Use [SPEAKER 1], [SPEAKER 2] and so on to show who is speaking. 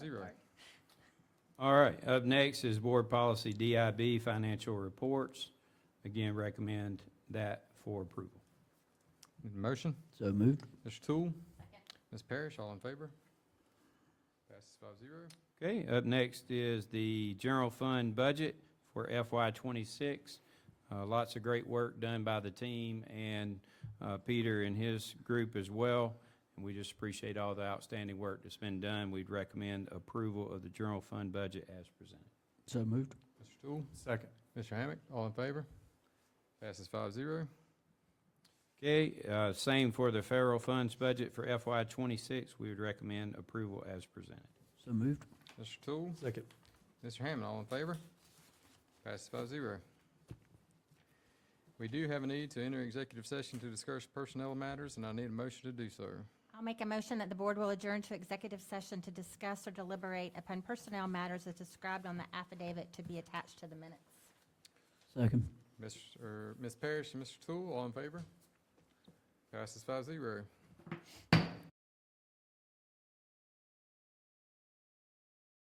[SPEAKER 1] zero.
[SPEAKER 2] All right, up next is Board Policy DIB Financial Reports. Again, recommend that for approval.
[SPEAKER 1] Need a Motion,
[SPEAKER 3] So moved.
[SPEAKER 1] Mr. Tool. Ms. Parrish, all in favor? Passes five zero.
[SPEAKER 2] Okay, up next is the general fund budget for FY twenty-six. Uh, lots of great work done by the team and, uh, Peter and his group as well. And we just appreciate all the outstanding work that's been done. We'd recommend approval of the general fund budget as presented.
[SPEAKER 3] So moved.
[SPEAKER 1] Mr. Tool,
[SPEAKER 4] Second.
[SPEAKER 1] Mr. Hammack, all in favor? Passes five zero.
[SPEAKER 2] Okay, uh, same for the federal funds budget for FY twenty-six. We would recommend approval as presented.
[SPEAKER 3] So moved.
[SPEAKER 1] Mr. Tool,
[SPEAKER 4] Second.
[SPEAKER 1] Mr. Hammond, all in favor? Passes five zero. We do have a need to enter executive session to discuss personnel matters, and I need a motion to do so.
[SPEAKER 5] I'll make a motion that the board will adjourn to executive session to discuss or deliberate upon personnel matters as described on the affidavit to be attached to the minutes.
[SPEAKER 3] Second.
[SPEAKER 1] Mr., Ms. Parrish and Mr. Tool, all in favor? Passes five zero.